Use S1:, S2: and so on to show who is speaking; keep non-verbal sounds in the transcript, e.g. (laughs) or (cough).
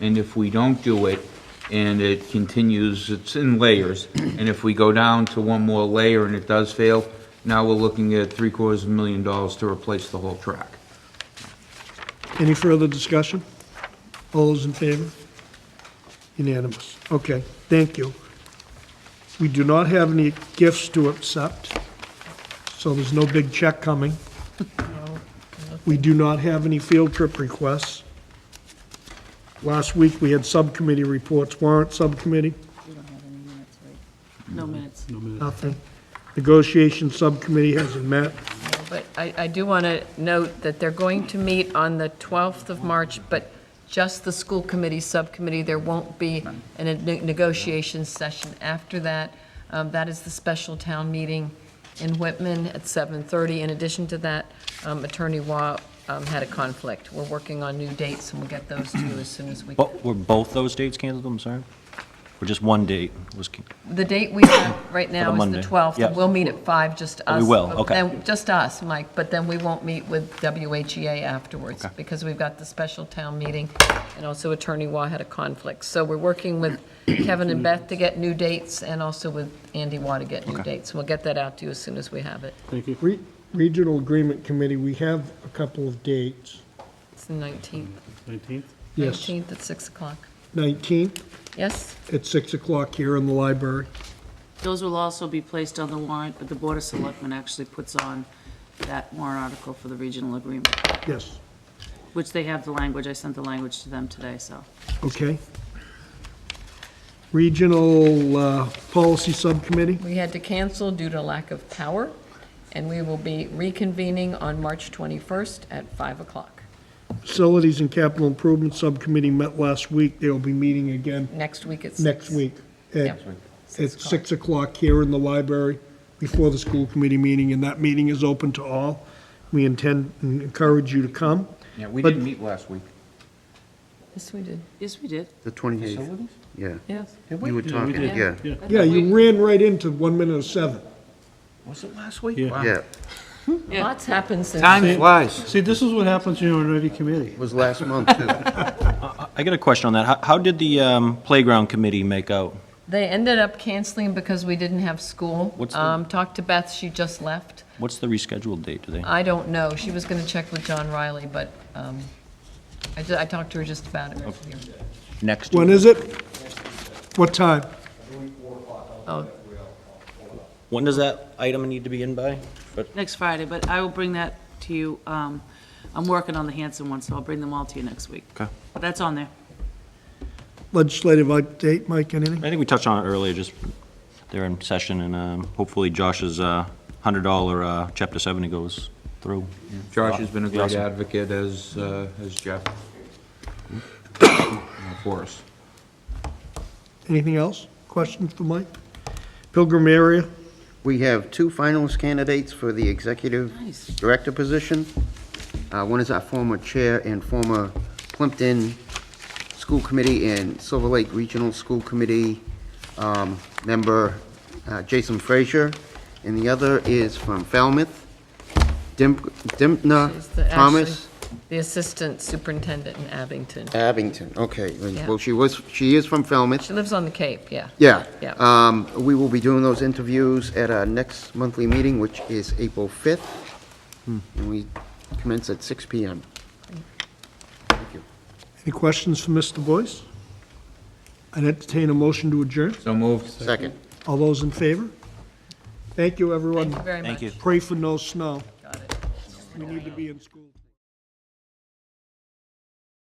S1: And if we don't do it, and it continues, it's in layers, and if we go down to one more layer and it does fail, now we're looking at three quarters of a million dollars to replace the whole track.
S2: Any further discussion? All those in favor? Unanimous. Okay, thank you. We do not have any gifts to accept, so there's no big check coming. We do not have any field trip requests. Last week, we had subcommittee reports, warrant subcommittee,
S3: We don't have any minutes, right? No minutes.
S2: nothing. Negotiation subcommittee hasn't met.
S3: But I, I do want to note that they're going to meet on the 12th of March, but just the school committee subcommittee. There won't be a ne- negotiation session after that. Um, That is the special town meeting in Whitman at 7:30. In addition to that, um, Attorney Waugh um, had a conflict. We're working on new dates, and we'll get those to you as soon as we can.
S4: Bo- Were both those dates canceled, I'm sorry? Or just one date was, can-
S3: The date we
S4: (coughs)
S3: have right now is the
S4: Monday.
S3: 12th.
S4: Yeah.
S3: and We'll meet at 5, just
S4: Oh,
S3: us.
S4: we will,
S3: but
S4: okay.
S3: then- Just us, Mike, but then we won't meet with WHEA afterwards,
S4: Okay.
S3: because we've got the special town meeting, and also Attorney Waugh had a conflict. So we're working
S4: (coughs)
S3: with Kevin and Beth to get new dates, and also with Andy Waugh to get new dates. We'll get that out to you as soon as we have it.
S2: Re- Regional Agreement Committee, we have a couple of dates.
S3: It's the 19th.
S5: Nineteenth?
S2: Yes,
S3: 19th at 6 o'clock.
S2: 19th
S3: Yes?
S2: at 6 o'clock here in the library.
S6: Those will also be placed on the warrant, but the Board of Selectmen actually puts on that warrant article for the regional agreement,
S2: Yes,
S6: which they have the language, I sent the language to them today, so.
S2: okay. Regional uh, Policy Subcommittee,
S3: We had to cancel due to lack of power, and we will be reconvening on March 21st at 5 o'clock.
S2: Facilities and Capital Improvement Subcommittee met last week. They'll be meeting again
S3: Next week it's.
S2: next week
S3: Yep.
S2: at at 6 o'clock here in the library before the school committee meeting, and that meeting is open to all. We intend and encourage you to come.
S1: Yeah, we
S2: But- didn't
S1: meet last week.
S3: Yes, we did.
S6: Yes, we did.
S7: The 28th, yeah.
S3: Yes.
S7: You were talking, yeah,
S2: Yeah, you ran right into 1 minute of 7.
S1: Was it last week?
S5: Yeah.
S1: Wow.
S7: yeah.
S6: Yeah.
S3: Lots happened since.
S7: Time flies.
S5: See, this is what happens, you know, in every committee.
S7: It was last month, too.
S3: (laughs)
S4: I got a question on that. How- How did the um, playground committee make out?
S3: They ended up canceling because we didn't have school.
S4: What's the-
S3: Um, talked to Beth, she just left.
S4: What's the rescheduled date today?
S3: I don't know, she was gonna check with John Riley, but, um, I ju- I talked to her just about it.
S4: Next?
S2: When is it? What time?
S3: Oh,
S4: When does that item need to be in by? But
S6: Next Friday, but I will bring that to you. um, I'm working on the Hanson one, so I'll bring them all to you next week.
S4: Okay.
S6: But that's on there.
S2: Legislative update, Mike, anything?
S4: I think we touched on it earlier, just they're in session, and um, hopefully Josh's uh, $100 uh, Chapter 70 goes through.
S1: Josh has been a great
S4: Awesome.
S1: advocate as, uh, as Jeff. (coughs) For us.
S2: Anything else? Questions for Mike? Pilgrim area,
S7: We have two finalist candidates for the executive
S6: Nice.
S7: director position. Uh, One is our former chair and former Plimpton School Committee and Silver Lake Regional School Committee um, member uh, Jason Frazier, and the other is from Falmouth, Dim-
S3: she's the-
S7: Dimna Uh, Thomas
S3: The assistant superintendent in Abington.
S7: Abington. Okay,
S3: Yeah.
S7: well, she was, she is from Falmouth.
S3: She lives on the Cape, yeah.
S7: Yeah.
S3: Yeah.
S7: Um, we will be doing those interviews at our next monthly meeting, which is April 5th. And we commence at 6 PM.
S2: any questions for Mr. Boyce? I'd entertain a motion to adjourn.
S1: So moved.
S7: Second.
S2: All those in favor? Thank you,
S3: Thank you
S2: everyone.
S3: very much.
S4: Thank you.
S2: Pray for no snow.
S3: Got it.
S2: We need to be in school.